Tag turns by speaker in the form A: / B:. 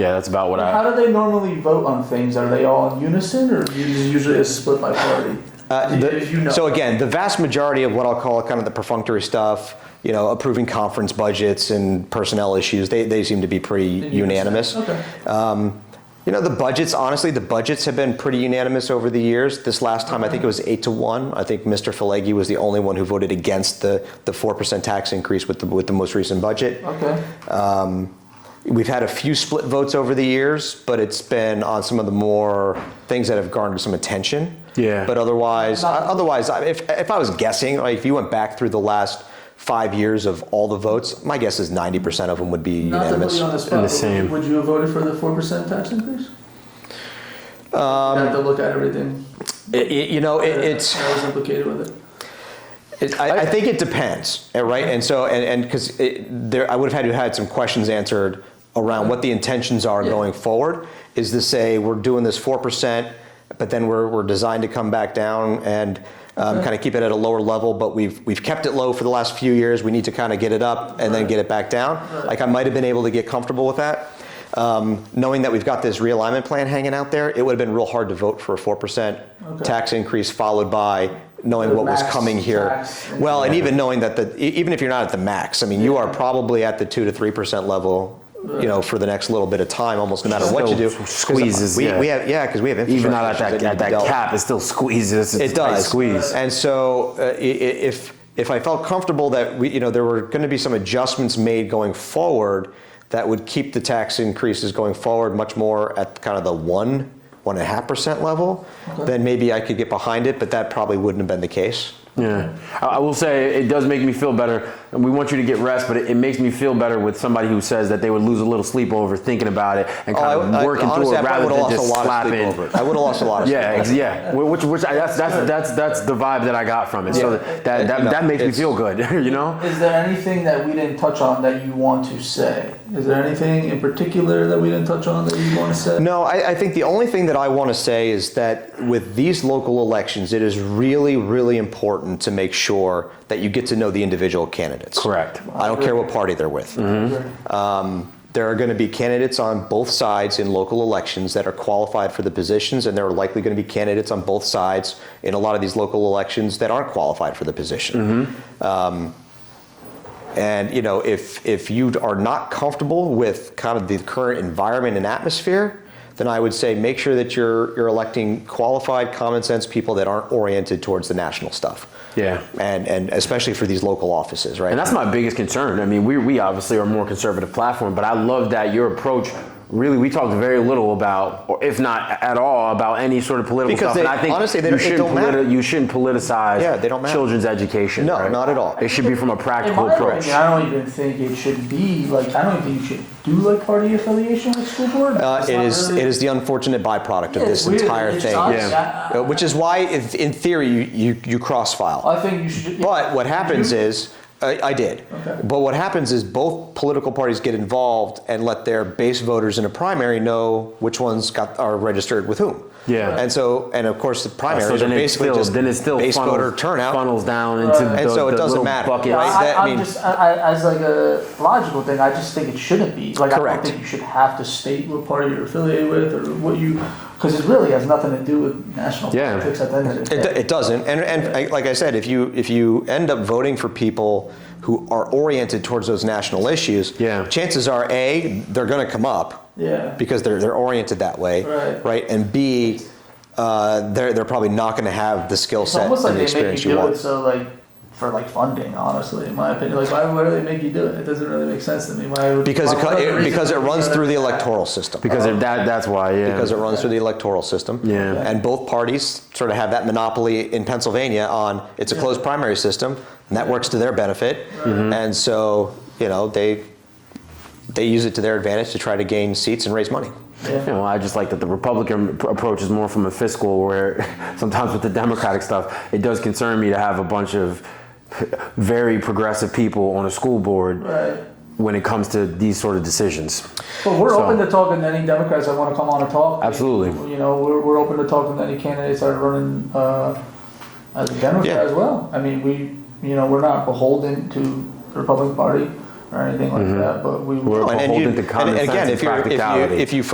A: Yeah, that's about what I.
B: How do they normally vote on things? Are they all in unison, or is it usually a split by party?
C: Uh,
B: You-
C: the-
B: you know.
C: So again, the vast majority of what I'll call kind of the perfunctory stuff, you know, approving conference budgets and personnel issues, they, they seem to be pretty unanimous.
B: Okay.
C: Um, you know, the budgets, honestly, the budgets have been pretty unanimous over the years. This last time, I think it was eight to one. I think Mr. Falegi was the only one who voted against the, the 4% tax increase with the, with the most recent budget.
B: Okay.
C: Um, we've had a few split votes over the years, but it's been on some of the more things that have garnered some attention.
A: Yeah.
C: But otherwise, uh, otherwise, I- if if I was guessing, like if you went back through the last five years of all the votes, my guess is ninety percent of them would be
B: Not to put
C: unanimous.
B: you on the spot,
A: the
B: but would you-
A: same.
B: would you have voted for the four percent tax increase? Um. Have to look at everything.
C: It- it- you know, it,
B: that-
C: it's.
B: That was implicated with it.
C: It, I, I think it depends, eh, right? And so, and and because there, I would have had to had some questions answered around what the intentions are
B: Yeah.
C: going forward. Is to say we're doing this four percent, but then we're we're designed to come back down and um, kind of keep it at a lower level. But we've we've kept it low for the last few years. We need to kind of get it up and then get it back down. Like I might have been able to get comfortable with that. Um, knowing that we've got this realignment plan hanging out there, it would have been real hard to vote for a 4%
B: Okay.
C: tax increase followed by knowing
B: The
C: what was
B: max
C: coming here.
B: tax.
C: Well, and even knowing that the, e- even if you're not at the max, I mean, you are probably at the two to three percent level, you know, for the next little bit of time, almost no matter what you do.
A: Still
C: 'Cause
A: squeezes,
C: We,
A: yeah.
C: we have, yeah, because we have
A: Even
C: infrastructure.
A: not at that
C: issues need
A: at
C: to
A: that
C: dealt-
A: cap, it still squeezes. It's
C: It
A: a tight
C: does.
A: squeeze.
C: And so, uh, i- i- if if I felt comfortable that we, you know, there were going to be some adjustments made going forward that would keep the tax increases going forward much more at kind of the one one and a half percent level, then maybe I could get behind it. But that probably wouldn't have been the case.
A: Yeah, I, I will say it does make me feel better. We want you to get rest, but it, it makes me feel better with somebody who says that they would lose a little sleep over thinking about it and
C: Oh, I-
A: kind of
C: I-
A: working through
C: honestly, I
A: it rather
C: probably would've
A: than
C: lost a
A: just
C: lot of sleep
A: slapping.
C: over it. I would have lost a lot of
A: Yeah,
C: sleep.
A: ex- yeah. Wh- Which, which I, that's, that's, that's, that's the vibe that I got from it. So
C: Yeah.
A: that, that,
C: You know,
A: that makes me
C: it's-
A: feel good, you know?
B: Is there anything that we didn't touch on that you want to say? Is there anything in particular that we didn't touch on that you want to say?
C: No, I, I think the only thing that I want to say is that with these local elections, it is really, really important to make sure that you get to know the individual candidates.
A: Correct.
C: I don't care what party they're with. Um, there are going to be candidates on both sides in local elections that are qualified for the positions, and there are likely going to be candidates on both sides in a lot of these local elections that aren't qualified for the position.
A: Mm-hmm.
C: Um, And you know, if if you are not comfortable with kind of the current environment and atmosphere, then I would say make sure that you're you're electing qualified, common sense people that aren't oriented towards the national stuff.
A: Yeah.
C: And and especially for these local offices, right?
A: And that's my biggest concern. I mean, we, we obviously are a more conservative platform, but I love that your approach. Really, we talked very little about, or if not at all, about any sort of political
C: Because
A: stuff. and
C: they-
A: I think
C: honestly, they
A: you
C: don't- it
A: shouldn't
C: don't matter.
A: You shouldn't politicize
C: Yeah, they don't matter.
A: children's education.
C: No,
A: right?
C: not at all.
A: It should be from a
B: In
A: practical
B: my
A: approach.
B: opinion, I don't even think it should be like I don't even think you should do like party affiliation with school board.
C: uh,
B: It's
C: it
B: not
C: is
B: really-
C: it is the unfortunate byproduct of
B: Yeah,
C: this
B: it's weird.
C: entire
B: It's
C: thing,
B: honestly,
A: Yeah.
B: I-
C: Uh, which is why, if, in theory, you you, you cross file.
B: I think you should.
C: But what happens
B: You-
C: is, I, I did.
B: Okay.
C: But what happens is both political parties get involved and let their base voters in a primary know which ones got are registered with whom.
A: Yeah. Uh,
C: And so, and of course, the primaries
A: so
C: are
A: then it
C: basically
A: still,
C: just
A: then it still
C: base
A: funnels,
C: voter turnout.
A: funnels down into
B: Right.
A: the,
C: And so it
A: the
C: doesn't
A: little
C: matter,
A: buckets.
B: Yeah,
C: right?
B: I,
C: That
B: I'm
C: means-
B: just I, I, as like a logical thing. I just think it shouldn't be like I
C: Correct.
B: don't think you should have to state what party you're affiliated with or what you because it really has nothing to do with national
A: Yeah.
B: politics at the end of the day.
C: It, do- it doesn't. And, and I- like I said, if you if you end up voting for people who are oriented towards those national issues,
A: Yeah.
C: chances are a they're going to come up.
B: Yeah.
C: Because they're they're oriented that way.
B: Right.
C: And b uh, they're they're probably not going to have the skill
B: It's
C: set
B: almost
C: and
B: like
C: the
B: they make
C: experience
B: you
C: you
B: do
C: want.
B: it so like for like funding, honestly, in my opinion. Like why, why do they make you do it? It doesn't really make sense to me. Why would
C: because it,
B: why
C: co-
B: would the
C: it
B: reason
C: because it
B: would be
C: runs
B: other
C: through the
B: than that?
C: electoral system.
A: Because if that, that's why, yeah.
C: because it runs through the electoral system.
A: Yeah.
C: And both parties sort of have that monopoly in Pennsylvania on it's a closed primary system, and that works to their benefit.
A: Mm-hmm.
C: And so, you know, they they use it to their advantage to try to gain seats and raise money.
B: Yeah.
A: You know, I just like that the Republican p- approach is more from a fiscal, where sometimes with the Democratic stuff, it does concern me to have a bunch of very progressive people on a school board
B: Right.
A: when it comes to these sort of decisions.
B: But we're
A: So-
B: open to talking to any Democrats that want to come on and talk.
A: Absolutely.
B: You know, we're, we're open to talking to any candidates that are running uh, as a Democrat
C: Yeah.
B: as well. I mean, we, you know, we're not beholden to the Republican Party. or anything like that, but we.
A: We're
C: and, and, you,
A: beholden to
C: and,
A: common
C: and
A: sense
C: again,
A: and
C: if, you're, if you
A: practicality.
C: if you